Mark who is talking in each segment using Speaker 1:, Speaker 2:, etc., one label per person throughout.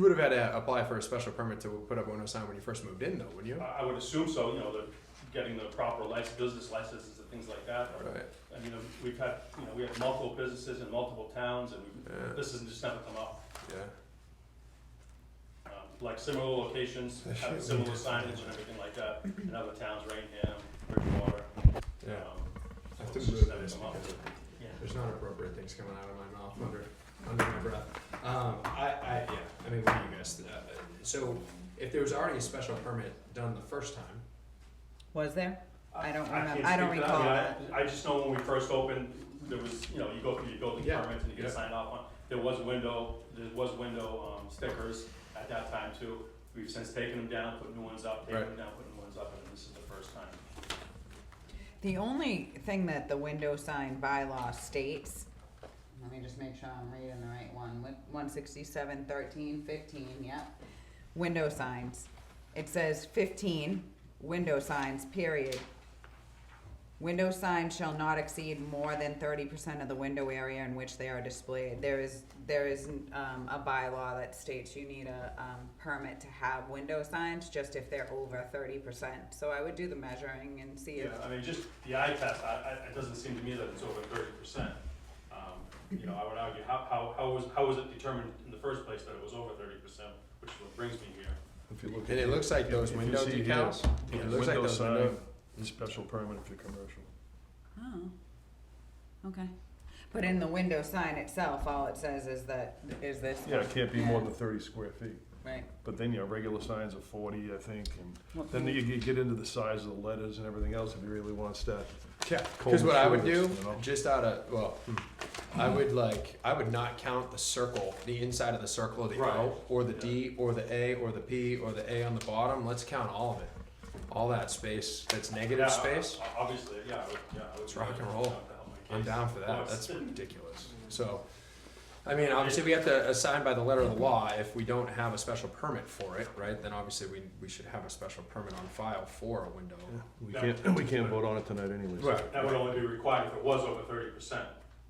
Speaker 1: You would have had to apply for a special permit to put up a window sign when you first moved in though, wouldn't you?
Speaker 2: I I would assume so, you know, the, getting the proper license, business licenses and things like that.
Speaker 1: Right,
Speaker 2: I mean, we've had, you know, we have multiple businesses in multiple towns and we-
Speaker 1: yeah,
Speaker 2: this has just never come up.
Speaker 1: yeah,
Speaker 2: Um, Like similar locations,
Speaker 3: That
Speaker 2: have
Speaker 3: shit
Speaker 2: similar
Speaker 3: we just-
Speaker 2: signage and everything like that in other towns, Rainham, Bridgewater.
Speaker 1: yeah.
Speaker 2: um,
Speaker 1: I
Speaker 2: so
Speaker 1: have to
Speaker 2: it's
Speaker 1: move
Speaker 2: just never
Speaker 1: this
Speaker 2: come up.
Speaker 1: because
Speaker 2: Yeah.
Speaker 1: there's not appropriate things coming out of my mouth under, under my breath. Um, I, I, yeah, I mean, what do you guys, uh, so if there was already a special permit done the first time,
Speaker 4: Was there? I don't
Speaker 2: can't
Speaker 4: remem- I don't
Speaker 2: speak to that. I mean,
Speaker 4: recall
Speaker 2: I I just know when we first opened, there was, you know, you go through your building
Speaker 1: Yeah,
Speaker 2: permits and you
Speaker 1: yeah.
Speaker 2: get signed off on. There was window, there was window um, stickers at that time too. We've since taken them down, put new ones up, taken
Speaker 1: Right.
Speaker 2: them down, put new ones up, and this is the first time.
Speaker 4: The only thing that the window sign bylaw states, let me just make sure I'm reading the right one, one sixty-seven thirteen fifteen, yep. Window signs, it says fifteen, window signs, period. Window signs shall not exceed more than thirty percent of the window area in which they are displayed. There is, there is, um, a bylaw that states you need a, um, permit to have window signs, just if they're over thirty percent. So I would do the measuring and see if
Speaker 2: Yeah, I mean, just the eye test, I, I, it doesn't seem to me that it's over thirty percent. Um, You know, I would argue, how, how, how was, how was it determined in the first place that it was over thirty percent, which is what brings me here.
Speaker 3: If you look
Speaker 1: and it
Speaker 3: at-
Speaker 1: looks like
Speaker 3: if-
Speaker 1: those
Speaker 3: if you
Speaker 1: window
Speaker 3: see here,
Speaker 1: decals,
Speaker 3: yeah,
Speaker 1: it looks like
Speaker 3: window
Speaker 1: those
Speaker 3: sign,
Speaker 1: window.
Speaker 3: and Special permit if you're commercial.
Speaker 4: Oh, okay. But in the window sign itself, all it says is that, is this.
Speaker 3: Yeah, it can't be more than thirty square feet,
Speaker 4: Right.
Speaker 3: but then your regular signs are forty, I think, and then you get- get into the size of the letters and everything else if you really want to start.
Speaker 1: Yeah,
Speaker 3: cold
Speaker 1: cause what I would do,
Speaker 3: shoulders, you know?
Speaker 1: just out of, well, I would like, I would not count the circle, the inside of the circle of the
Speaker 2: Right.
Speaker 1: O, or the D, or the A, or the P, or the A on the bottom, let's count all of it. All that space, that's
Speaker 2: Yeah,
Speaker 1: negative space,
Speaker 2: o- o- Obviously, yeah, I would, yeah, I would.
Speaker 1: It's rock and
Speaker 2: I'd
Speaker 1: roll.
Speaker 2: help my
Speaker 1: I'm
Speaker 2: case.
Speaker 1: down for that,
Speaker 2: Well,
Speaker 1: that's
Speaker 2: it's-
Speaker 1: ridiculous, so. I mean, obviously, we have to assign by the letter of the law, if we don't have a special permit for it, right, then obviously we, we should have a special permit on file for a window.
Speaker 3: We
Speaker 2: Yeah.
Speaker 3: can't, we can't vote on it tonight anyways.
Speaker 1: Right.
Speaker 2: That would only be required if it was over thirty percent,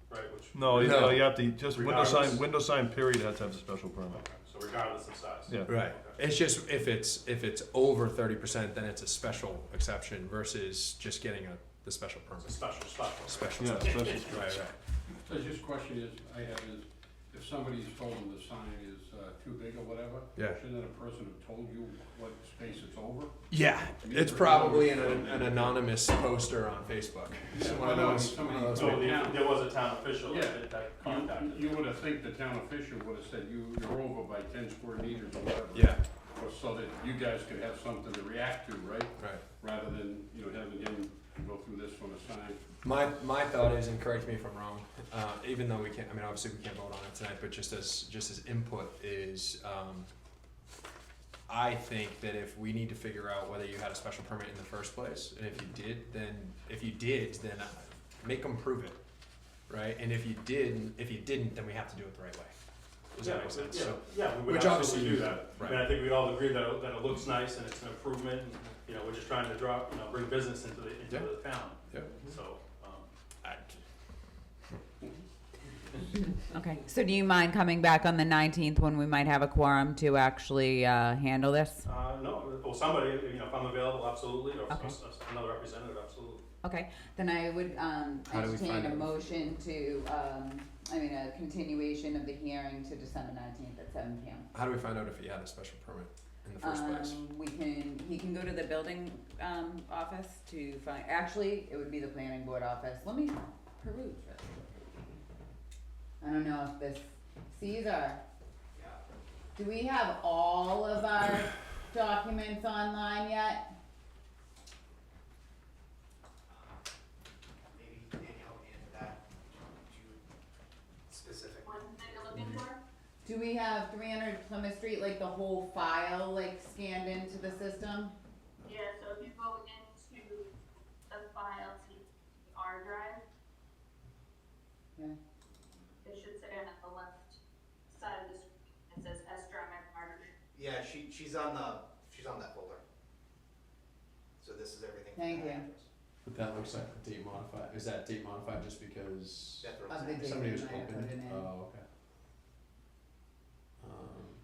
Speaker 2: right, which.
Speaker 3: No, you
Speaker 1: No.
Speaker 3: no, you have to, just window sign,
Speaker 2: Regardless.
Speaker 3: window sign period has to have a special permit.
Speaker 2: Okay, So regardless of size.
Speaker 3: Yeah.
Speaker 1: Right. It's just if it's if it's over thirty percent, then it's a special exception versus just getting a the special
Speaker 2: It's a
Speaker 1: permit.
Speaker 2: special, special.
Speaker 1: Special.
Speaker 3: Yeah,
Speaker 1: exception.
Speaker 3: special.
Speaker 1: Right, right.
Speaker 5: So just question is, I have is, if somebody's told them the sign is uh, too big or whatever,
Speaker 1: Yeah.
Speaker 5: shouldn't a person have told you what space it's over?
Speaker 1: Yeah, it's probably an, an anonymous poster on Facebook. It's one of those. One of those
Speaker 2: So
Speaker 1: big-
Speaker 2: there, there was a town official
Speaker 5: Yeah.
Speaker 2: that, that
Speaker 5: You-
Speaker 2: contacted.
Speaker 5: You
Speaker 2: them.
Speaker 5: would have think the town official would have said, you, you're over by ten square meters or whatever.
Speaker 1: yeah,
Speaker 5: or So that you guys could have something to react to, right?
Speaker 1: right.
Speaker 5: Rather than, you know, having him go through this on a sign.
Speaker 1: My my thought is, and correct me if I'm wrong. Uh, even though we can't, I mean, obviously we can't vote on it tonight, but just as just as input is, um, I think that if we need to figure out whether you had a special permit in the first place, and if you did, then if you did, then make them prove it, right? And if you did, if you didn't, then we have to do it the right way. Does
Speaker 2: Yeah,
Speaker 1: that make
Speaker 2: but-
Speaker 1: sense?
Speaker 2: yeah,
Speaker 1: So
Speaker 2: Yeah, we
Speaker 1: which
Speaker 2: would absolutely
Speaker 1: obviously
Speaker 2: do
Speaker 1: you-
Speaker 2: that. I
Speaker 1: right.
Speaker 2: mean, I think we all agree that, it- that it looks nice and it's an improvement, and, you know, we're just trying to draw, you know, bring business into the, into
Speaker 1: Yeah.
Speaker 2: the town,
Speaker 1: yeah,
Speaker 2: so, um,
Speaker 1: I,
Speaker 4: Okay. So do you mind coming back on the nineteenth when we might have a quorum to actually, uh, handle this?
Speaker 2: uh, no, or somebody, you know, if I'm available, absolutely, or if
Speaker 4: Okay.
Speaker 2: s- s- another representative, absolutely.
Speaker 4: Okay, then I would, um,
Speaker 1: How do we
Speaker 4: entertain
Speaker 1: find
Speaker 4: a
Speaker 1: out?
Speaker 4: motion to, um, I mean, a continuation of the hearing to December nineteenth at seven P M.
Speaker 1: how do we find out if you had a special permit in the first place?
Speaker 4: Um, we can, he can go to the building, um, office to find, actually, it would be the planning board office, let me peruse really quick. I don't know if this, Caesar. Do we have all of our documents online yet?
Speaker 6: maybe Danielle can answer that, do you specific?
Speaker 4: Do we have three hundred Plymouth Street, like the whole file, like scanned into the system?
Speaker 7: Yeah, so if you go into the file to the R drive,
Speaker 4: Yeah.
Speaker 7: it should say on the left side of the screen, it says S drive, R drive.
Speaker 6: Yeah, she, she's on the, she's on that folder. So this is everything. from
Speaker 4: Thank
Speaker 6: that
Speaker 4: you.
Speaker 6: address.
Speaker 1: But that looks like date modified. Is that date modified just because
Speaker 6: That's what I'm
Speaker 4: Of the
Speaker 6: saying.
Speaker 4: date.
Speaker 1: somebody
Speaker 4: we
Speaker 1: just
Speaker 4: might have
Speaker 1: opened
Speaker 4: put
Speaker 1: it?
Speaker 4: it in.
Speaker 1: Oh, okay. Um,